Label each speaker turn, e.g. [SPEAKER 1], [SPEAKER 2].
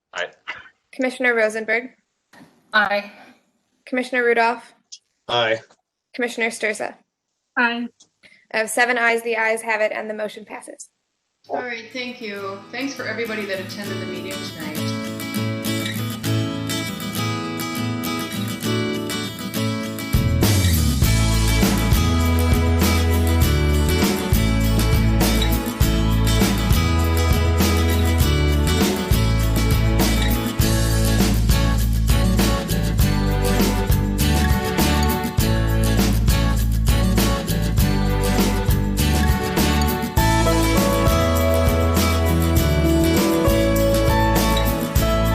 [SPEAKER 1] Commissioner Rosenberg,
[SPEAKER 2] Aye.
[SPEAKER 1] Commissioner Rudolph,
[SPEAKER 3] Aye.
[SPEAKER 1] Commissioner Sturza.
[SPEAKER 2] Aye.
[SPEAKER 1] Of seven ayes, the ayes have it, and the motion passes.
[SPEAKER 4] All right, thank you. Thanks for everybody that attended the meeting tonight.